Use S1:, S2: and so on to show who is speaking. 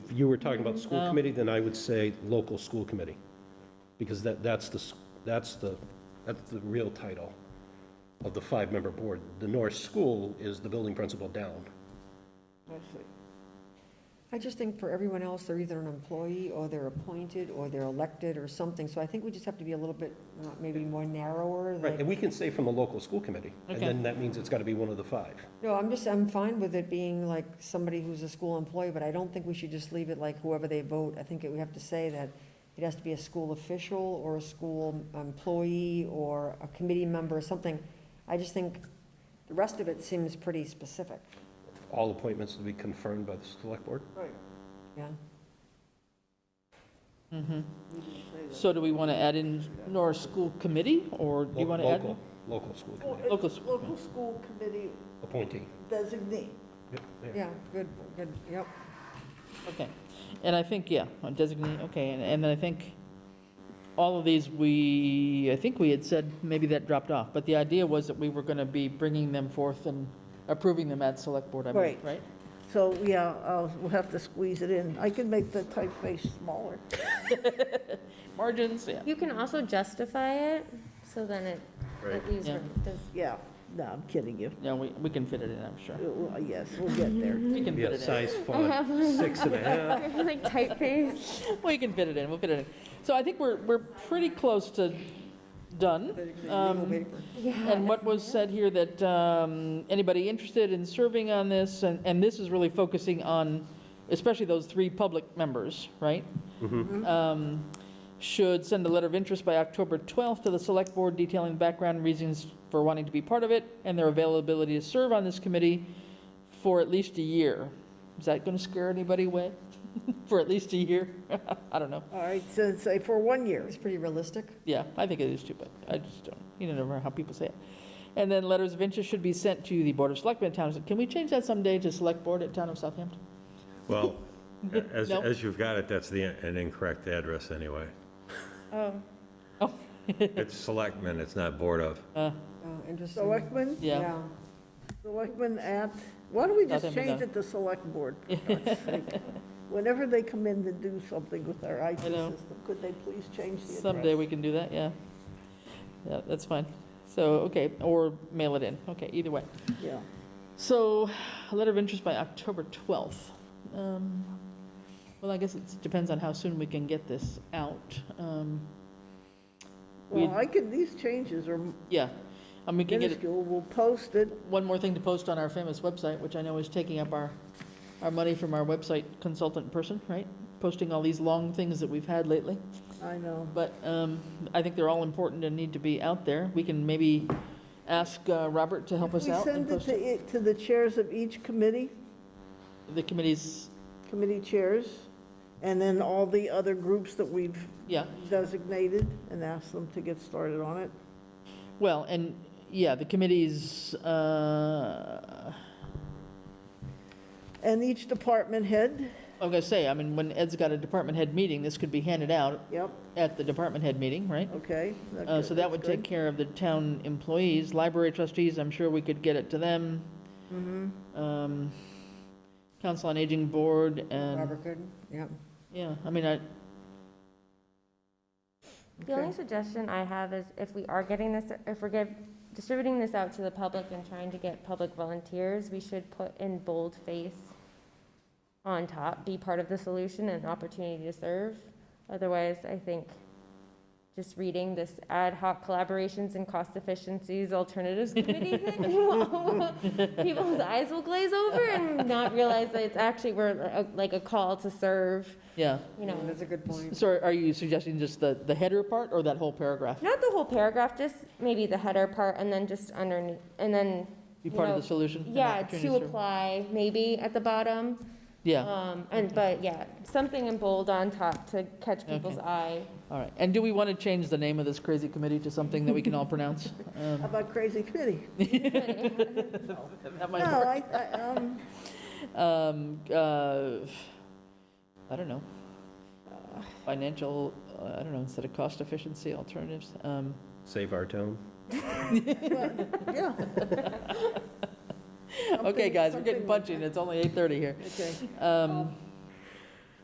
S1: you were talking about school
S2: No.
S1: committee, then I would say local school committee, because that, that's the, s- that's the, that's the real title of the five-member board. The North School is the building principal down.
S2: I see.
S3: I just think for everyone else, they're either an employee, or they're appointed, or they're elected, or something, so I think we just have to be a little bit, uh, maybe more narrower,
S1: Right,
S3: like,
S1: and we can say from the local school committee, and
S2: Okay.
S1: then that means it's gotta be one of the five.
S3: no, I'm just, I'm fine with it being like somebody who's a school employee, but I don't think we should just leave it like whoever they vote, I think it- we have to say that it has to be a school official, or a school employee, or a committee member, or something, I just think the rest of it seems pretty specific,
S1: All appointments will be confirmed by the select board.
S2: Right.
S3: yeah?
S2: So do we want to add in Norris School Committee, or do you want to add?
S1: Local, local school
S4: Well,
S1: committee,
S4: it's
S2: Local school
S4: Local school committee
S1: appointee.
S4: designee.
S1: Yep, yeah.
S3: Yeah, good, good, yep.
S2: Okay, and I think, yeah, on designate, okay, and, and then I think all of these, we, I think we had said, maybe that dropped off, but the idea was that we were going to be bringing them forth and approving them at select board, I believe,
S4: Right.
S2: right?
S4: So, yeah, I'll, we'll have to squeeze it in. I can make the typeface smaller.
S2: Margins, yeah.
S5: You can also justify it, so then it,
S1: Right.
S5: it leaves,
S2: Yeah.
S5: room. Does-
S4: Yeah, no, I'm kidding you.
S2: Yeah, we, we can fit it in, I'm sure.
S4: Uh, well, Yes, we'll get there.
S2: We can
S1: Be
S2: fit
S1: a
S2: it in. Uh-huh.
S1: size font, six and a half.
S5: like typeface.
S2: We can fit it in, we'll fit it in. So I think we're, we're pretty close to done. Um, And what was said here, that um, anybody interested in serving on this, and, and this is really focusing on, especially those three public members, right? Um, Should send a letter of interest by October 12th to the Select Board detailing background reasons for wanting to be part of it, and their availability to serve on this committee for at least a year. Is that going to scare anybody away? For at least a year? I don't know.
S4: All right, so say for one year.
S3: It's pretty realistic.
S2: Yeah, I think it is too, but I just don't, you don't know how people say it. And then letters of interest should be sent to the Board of Selectmen at Town of, can we change that someday to Select Board at Town of Southampton?
S6: Well, a- as,
S2: No.
S6: as you've got it, that's the, an incorrect address anyway.
S4: Um,
S6: It's selectmen, it's not board of.
S2: Uh,
S3: Oh, interesting.
S4: Selectmen,
S2: Yeah,
S4: selectmen at, why don't we just
S2: Nothing but
S4: change
S2: that.
S4: it to select board? for God's sake? Whenever they come in to do something with our IT
S2: I know.
S4: system, could they please change the address?
S2: someday we can do that, yeah. Yeah, that's fine. So, okay, or mail it in, okay, either way.
S4: Yeah.
S2: So, a letter of interest by October 12th. Um, Well, I guess it depends on how soon we can get this out. Um, We-
S4: Well, I can, these changes are
S2: Yeah, and we can get it
S4: minuscule. We'll post it.
S2: one more thing to post on our famous website, which I know is taking up our, our money from our website consultant person, right? Posting all these long things that we've had lately.
S4: I know.
S2: But um, I think they're all important and need to be out there. We can maybe ask uh, Robert to help us out and
S4: We
S2: post
S4: send
S2: it.
S4: it to, to the chairs of each committee,
S2: the committees,
S4: committee chairs, and then all the other groups that we've
S2: yeah.
S4: designated, and ask them to get started on it.
S2: Well, and, yeah, the committees, uh,
S4: And each department head,
S2: I was gonna say, I mean, when Ed's got a department head meeting, this could be handed out
S4: yep,
S2: at the department head meeting, right?
S4: okay.
S2: Uh, So that
S4: that's
S2: would take
S4: good.
S2: care of the town employees, library trustees, I'm sure we could get it to them. Um, Council on Aging Board and,
S3: Robert Gooden, yeah.
S2: yeah, I mean, I,
S5: The only suggestion I have is if we are getting this, if we're give, distributing this out to the public and trying to get public volunteers, we should put in boldface on top, be part of the solution and opportunity to serve. Otherwise, I think just reading this ad hoc collaborations and cost efficiencies alternatives committee thing, people's eyes will glaze over and not realize that it's actually, we're uh, like a call to serve,
S2: yeah.
S5: you know.
S3: That's a good point.
S2: So are you suggesting just the, the header part or that whole paragraph?
S5: Not the whole paragraph, just maybe the header part and then just underneath, and then,
S2: Be
S5: you
S2: part of
S5: know,
S2: the solution? and
S5: yeah,
S2: opportunity
S5: to
S2: serve?
S5: apply, maybe at the bottom.
S2: Yeah,
S5: Um, and, but yeah, something in bold on top to catch people's
S2: Okay.
S5: eye.
S2: all right. And do we want to change the name of this crazy committee to something that we can all pronounce?
S4: How
S2: Um,
S4: about crazy committee?
S2: That
S4: No,
S2: might work.
S4: I, I, um,
S2: Um, uh, I don't know. Financial, uh, I don't know, instead of cost efficiency alternatives. Um,
S1: Save our town.
S4: yeah.
S2: okay,
S4: Something-
S2: guys, we're
S4: something
S2: getting
S4: like
S2: punchy and
S4: that.
S2: it's only 8:30 here.
S4: Okay.
S2: Um,